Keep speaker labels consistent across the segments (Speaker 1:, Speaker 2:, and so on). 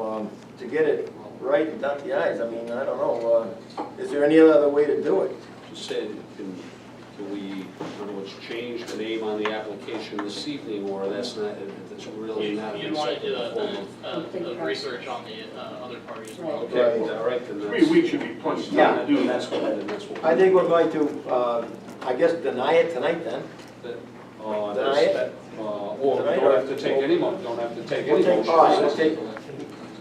Speaker 1: um, to get it right and dot the i's. I mean, I don't know, uh, is there any other way to do it?
Speaker 2: Just said, can, can we, in other words, change the name on the application this evening, or that's not, that's really
Speaker 3: You-
Speaker 2: not. an
Speaker 3: You'd want to do
Speaker 2: acceptable
Speaker 3: a-
Speaker 2: form
Speaker 3: a, a, a research on the uh, other party as well.
Speaker 2: of- Okay, all right, then that's.
Speaker 4: Three weeks should be plenty of
Speaker 2: Yeah,
Speaker 4: time to do
Speaker 2: then that's
Speaker 4: that.
Speaker 2: what, then that's what.
Speaker 1: I think we're going to, uh, I guess, deny it tonight then. Deny
Speaker 2: Uh, that's-
Speaker 1: it?
Speaker 2: that- Uh, or
Speaker 1: Deny it,
Speaker 2: don't
Speaker 1: or-
Speaker 2: have to take any mo, don't have to take
Speaker 1: We'll
Speaker 2: any
Speaker 1: take-
Speaker 2: motion.
Speaker 1: all right, we'll take-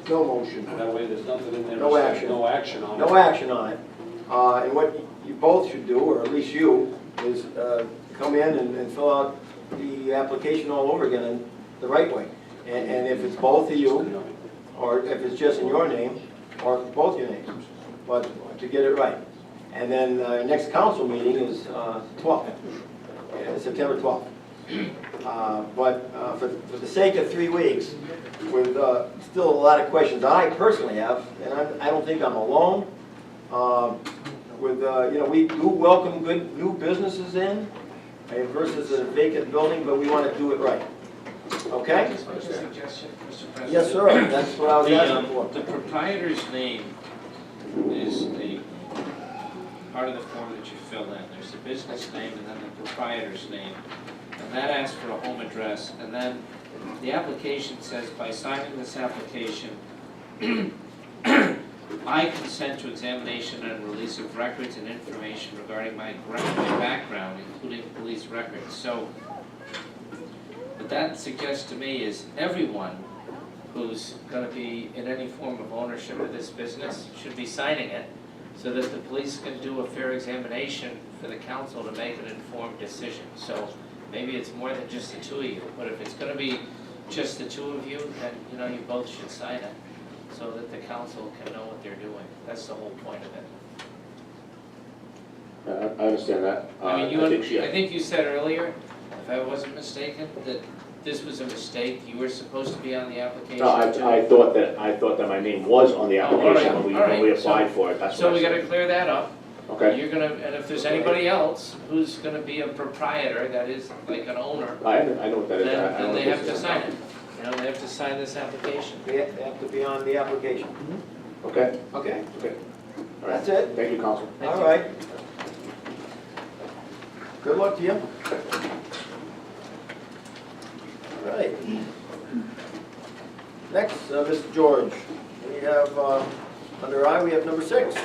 Speaker 1: No
Speaker 2: That
Speaker 1: motion.
Speaker 2: way, there's nothing in there.
Speaker 1: No
Speaker 2: that says
Speaker 1: action.
Speaker 2: No action on it.
Speaker 1: No action on it. Uh, And what you both should do, or at least you, is uh, come in and and fill out the application all over again in the right way. And and if it's both of you, or if it's just in your name, or both your names, but to get it right. And then uh, next council meeting is uh, 12th, yeah, September 12th. Uh, But uh, for for the sake of three weeks, with uh, still a lot of questions I personally have, and I I don't think I'm alone, um, with, uh, you know, we do welcome good new businesses in eh, versus a vacant building, but we want to do it right. Okay?
Speaker 5: Just make a suggestion, Mr. President.
Speaker 1: Yes, sir, that's what I was
Speaker 5: The,
Speaker 1: asking
Speaker 5: um,
Speaker 1: for.
Speaker 5: the proprietor's name is the part of the form that you fill in. There's the business name and then the proprietor's name. And that asks for a home address. And then the application says, by signing this application, I consent to examination and release of records and information regarding my gra- my background, including police records. So what that suggests to me is everyone who's gonna be in any form of ownership of this business should be signing it so that the police can do a fair examination for the council to make an informed decision. So maybe it's more than just the two of you, but if it's gonna be just the two of you, then, you know, you both should sign it so that the council can know what they're doing. That's the whole point of it.
Speaker 6: I I understand that. Uh,
Speaker 5: I mean, you,
Speaker 6: I think,
Speaker 5: I
Speaker 6: yeah,
Speaker 5: think you said earlier, if I wasn't mistaken, that this was a mistake, you were supposed to be on the application too.
Speaker 6: no, I, I thought that, I thought that my name was on the
Speaker 5: Oh, all right,
Speaker 6: application when we,
Speaker 5: all right,
Speaker 6: when we
Speaker 5: so-
Speaker 6: applied for it, that's what
Speaker 5: So
Speaker 6: I
Speaker 5: we gotta
Speaker 6: said.
Speaker 5: clear that up.
Speaker 6: Okay,
Speaker 5: You're gonna, and if there's anybody else who's gonna be a proprietor, that is like an owner,
Speaker 6: I, I know what that
Speaker 5: then,
Speaker 6: is. I- I
Speaker 5: then
Speaker 6: don't
Speaker 5: they
Speaker 6: think
Speaker 5: have to
Speaker 6: it's-
Speaker 5: sign it. You know, they have to sign this application.
Speaker 1: They have they have to be on the application.
Speaker 5: Mm-hmm.
Speaker 6: Okay,
Speaker 1: Okay,
Speaker 6: all right.
Speaker 1: That's it.
Speaker 6: Thank you, Council.
Speaker 5: Thank
Speaker 1: all
Speaker 5: you.
Speaker 1: right. Good luck to you. All right. Next, uh, Mr. George, we have, uh, under I, we have number six.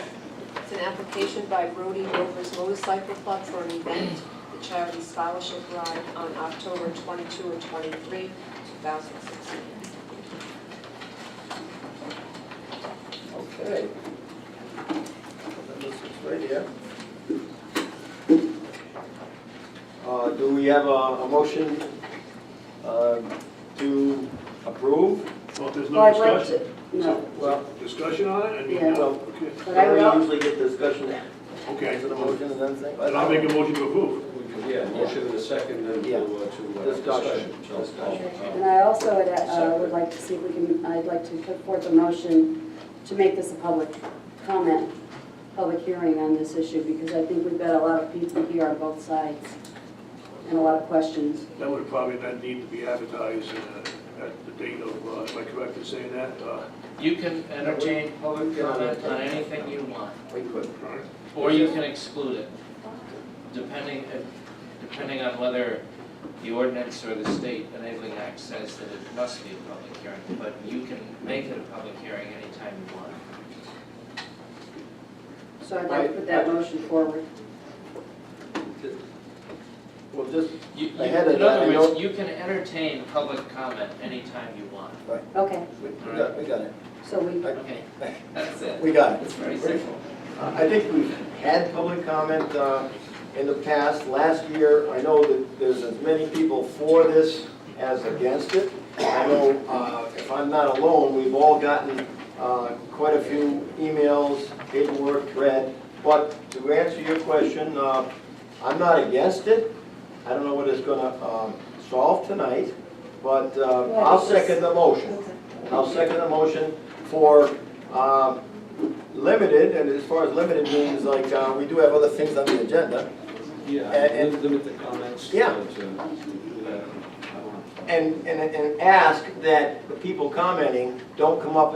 Speaker 7: It's an application by Brody Rovers Motorcycle Club for an event, the charity scholarship ride on October 22 and 23, 2016.
Speaker 1: Okay. Number six right here. Uh, Do we have a a motion uh, to approve?
Speaker 4: Well, if
Speaker 8: Well,
Speaker 4: there's no
Speaker 8: I'd like to,
Speaker 4: discussion,
Speaker 8: no,
Speaker 1: Well,
Speaker 4: discussion on it, I mean,
Speaker 8: Yeah.
Speaker 1: Well-
Speaker 4: okay.
Speaker 8: but I
Speaker 1: We
Speaker 8: will,
Speaker 1: usually get discussion
Speaker 4: Okay,
Speaker 1: after the motion and then thing.
Speaker 4: then I'll make a motion to approve.
Speaker 2: We could, Yeah, motion in a second, then to,
Speaker 1: Yeah.
Speaker 2: uh, to uh,
Speaker 1: Discussion.
Speaker 2: discussion. So,
Speaker 8: and
Speaker 2: uh,
Speaker 8: I also would, uh, would like to see if we can, I'd like to put forth a motion to make this a public comment, public hearing on this issue, because I think we've got a lot of people here on both sides, and a lot of questions.
Speaker 4: That would probably not need to be advertised uh, at the date of, uh, am I correct in saying that? Uh,
Speaker 5: You can entertain public comment on anything you want,
Speaker 1: We could.
Speaker 5: or you can exclude it, depending, depending on whether the ordinance or the state enabling act says that it must be a public hearing, but you can make it a public hearing anytime you want.
Speaker 8: So I'd like to put that motion forward.
Speaker 1: Well, just,
Speaker 5: You, you-
Speaker 1: Ahead of
Speaker 5: in
Speaker 1: that, I
Speaker 5: other
Speaker 1: know-
Speaker 5: words, you can entertain public comment anytime you want.
Speaker 8: Okay,
Speaker 1: we we got, we got it.
Speaker 8: so we,
Speaker 5: Okay, that's it.
Speaker 1: We got it.
Speaker 5: It's very simple.
Speaker 1: Uh, I think we've had public comment uh, in the past. Last year, I know that there's as many people for this as against it. I know, uh, if I'm not alone, we've all gotten uh, quite a few emails, paperwork read. But to answer your question, uh, I'm not against it. I don't know what it's going to solve tonight, but uh, I'll second the motion. I'll second the motion for um, limited, and as far as limited means, like, uh, we do have other things on the agenda.
Speaker 2: Yeah,
Speaker 1: Uh, And-
Speaker 2: lim- limit the comments. uh,
Speaker 1: Yeah.
Speaker 2: to- to that. I don't know.
Speaker 1: And, and, and ask that the people commenting don't come up